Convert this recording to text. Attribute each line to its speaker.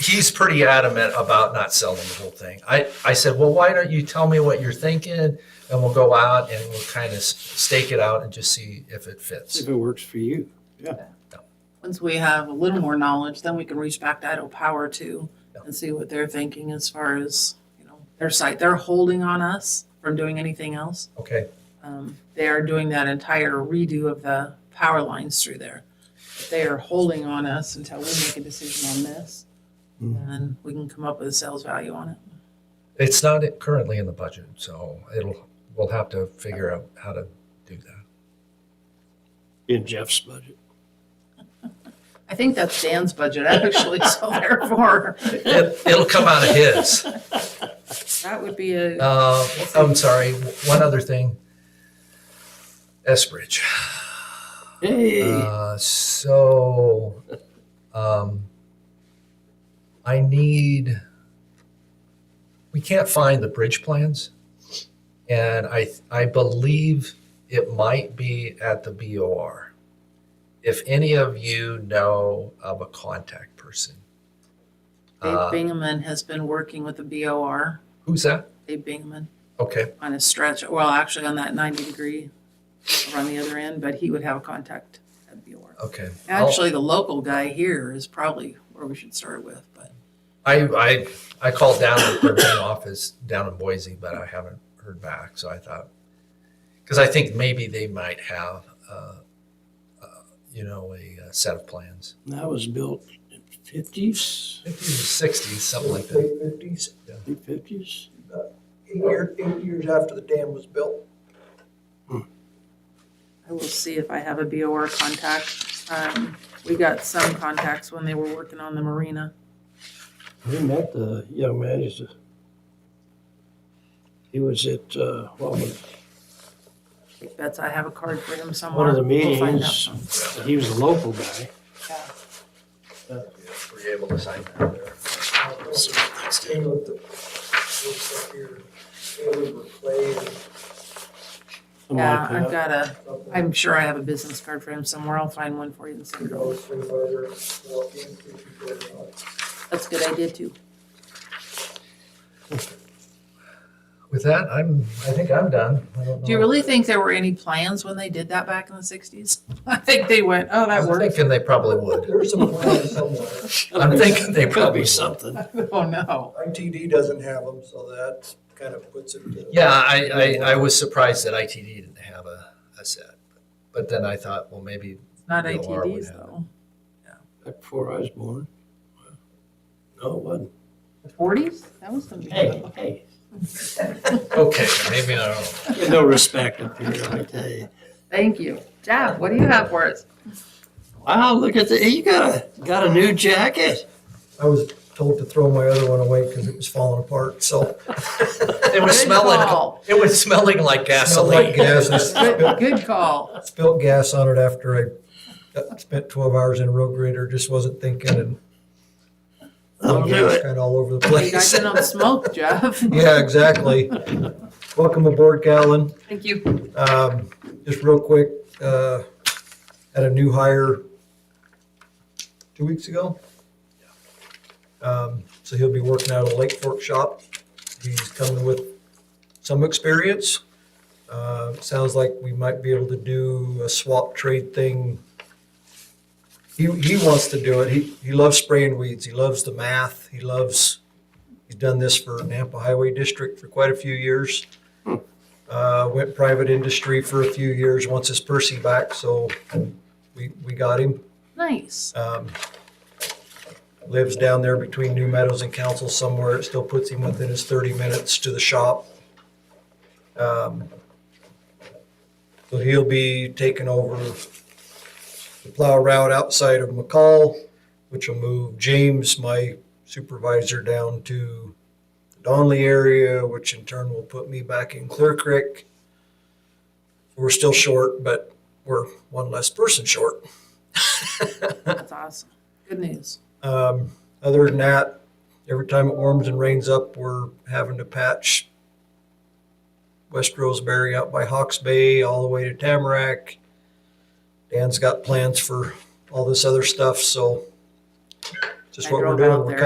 Speaker 1: he's pretty adamant about not selling the whole thing. I, I said, well, why don't you tell me what you're thinking and we'll go out and we'll kind of stake it out and just see if it fits.
Speaker 2: If it works for you.
Speaker 3: Once we have a little more knowledge, then we can reach back to Idaho Power too and see what they're thinking as far as, you know, their site. They're holding on us from doing anything else.
Speaker 1: Okay.
Speaker 3: Um, they are doing that entire redo of the power lines through there. But They are holding on us until we make a decision on this.
Speaker 2: Mhm.
Speaker 3: And we can come up with a sales value on it.
Speaker 1: It's not currently in the budget, so it'll, we'll have to figure out how to do that.
Speaker 2: In Jeff's budget.
Speaker 3: I think that's Dan's budget actually, so therefore,
Speaker 1: It, it'll come out of his.
Speaker 3: that would be a,
Speaker 1: Uh, I'm sorry, one other thing. Eskbridge.
Speaker 2: Hey,
Speaker 1: Uh, so, um, I need, we can't find the bridge plans. And I, I believe it might be at the BOR. If any of you know of a contact person.
Speaker 3: Dave
Speaker 1: Uh,
Speaker 3: Bingaman has been working with the BOR,
Speaker 1: who's that?
Speaker 3: Dave Bingaman,
Speaker 1: Okay,
Speaker 3: on a stretch, well, actually on that ninety degree around the other end, but he would have a contact at BOR.
Speaker 2: Oh.
Speaker 1: okay. I'll-
Speaker 3: Actually, the local guy here is probably where we should start with, but
Speaker 1: I, I, I called down at their main office down in Boise, but I haven't heard back. So I thought, because I think maybe they might have, uh, uh, you know, a, uh set of plans.
Speaker 2: that was built in fifties,
Speaker 1: Fifties or sixties, something like that.
Speaker 4: Late fifties,
Speaker 1: Yeah.
Speaker 2: late fifties.
Speaker 4: eight year, eight years after the dam was built.
Speaker 3: I will see if I have a BOR contact. Um, we got some contacts when they were working on the marina.
Speaker 2: We met the young man, he's a, he was at, uh, well,
Speaker 3: I think that's, I have a card for him somewhere.
Speaker 2: one of the
Speaker 3: We'll find out
Speaker 2: meetings,
Speaker 3: some.
Speaker 2: he was a local guy.
Speaker 3: Yeah.
Speaker 1: Were you able to sign that there?
Speaker 4: Same with the, looks like your, they were clay or
Speaker 2: something
Speaker 3: Yeah,
Speaker 2: like
Speaker 3: I've
Speaker 2: that.
Speaker 3: got a,
Speaker 4: something.
Speaker 3: I'm sure I have a business card for him somewhere. I'll find one for you and send
Speaker 4: You
Speaker 3: it
Speaker 4: know,
Speaker 3: over.
Speaker 4: it's way harder to walk in, if you go around.
Speaker 3: That's a good idea too.
Speaker 1: With that, I'm, I think I'm done. I don't
Speaker 3: Do you
Speaker 1: know.
Speaker 3: really think there were any plans when they did that back in the sixties? I think they went, oh, that
Speaker 1: I'm
Speaker 3: worked.
Speaker 1: thinking they probably would.
Speaker 4: There's some plan somewhere.
Speaker 1: I'm thinking they
Speaker 2: Gotta
Speaker 1: probably
Speaker 2: be
Speaker 1: something.
Speaker 2: something.
Speaker 3: Oh, no.
Speaker 4: ITD doesn't have them, so that kind of puts it. to-
Speaker 1: Yeah, I, I, I was surprised that ITD didn't have a, a set. But then I thought, well, maybe
Speaker 3: It's not
Speaker 1: They are
Speaker 3: ATVs
Speaker 1: what
Speaker 3: though.
Speaker 2: Back before I was born. No, it wasn't.
Speaker 3: Forties? That was the.
Speaker 2: Hey, hey,
Speaker 1: Okay, maybe I don't.
Speaker 2: get no respect up here, I tell you.
Speaker 3: Thank you. Jeff, what do you have for us?
Speaker 2: Wow, look at the, you got a, got a new jacket.
Speaker 4: I was told to throw my other one away because it was falling apart, so.
Speaker 1: It was
Speaker 3: Good
Speaker 1: smelling.
Speaker 3: call.
Speaker 1: It was smelling like
Speaker 4: Smelled
Speaker 1: gasoline.
Speaker 4: like gas. I spilled-
Speaker 3: Good, good call.
Speaker 4: Spilled gas on it after I uh, spent twelve hours in a road grader, just wasn't thinking and
Speaker 2: I'll do it.
Speaker 4: Kind of all over the
Speaker 3: You guys
Speaker 4: place.
Speaker 3: don't smoke, Jeff.
Speaker 4: Yeah, exactly. Welcome aboard, Callan.
Speaker 3: Thank you.
Speaker 4: Um, just real quick, uh, had a new hire two weeks ago. Um, so he'll be working out of the Lake Fork shop. He's coming with some experience. Uh, sounds like we might be able to do a swap trade thing. He, he wants to do it. He, he loves spraying weeds. He loves the math. He loves, he's done this for Nampa Highway District for quite a few years uh, went private industry for a few years, wants his Percy back, so we, we got him.
Speaker 3: Nice.
Speaker 4: Um, Lives down there between New Meadows and Council somewhere, it still puts him within his thirty minutes to the shop. Um, So he'll be taking over the plow route outside of McCall, which will move James, my supervisor, down to the Donley area, which in turn will put me back in Clear Creek. We're still short, but we're one less person short.
Speaker 3: That's awesome. Good news.
Speaker 4: Um, other than that, every time it warms and rains up, we're having to patch West Roseberry out by Hawks Bay all the way to Tamarack. Dan's got plans for all this other stuff, so just
Speaker 3: I
Speaker 4: what we're
Speaker 3: drove out
Speaker 4: doing. We're
Speaker 3: there.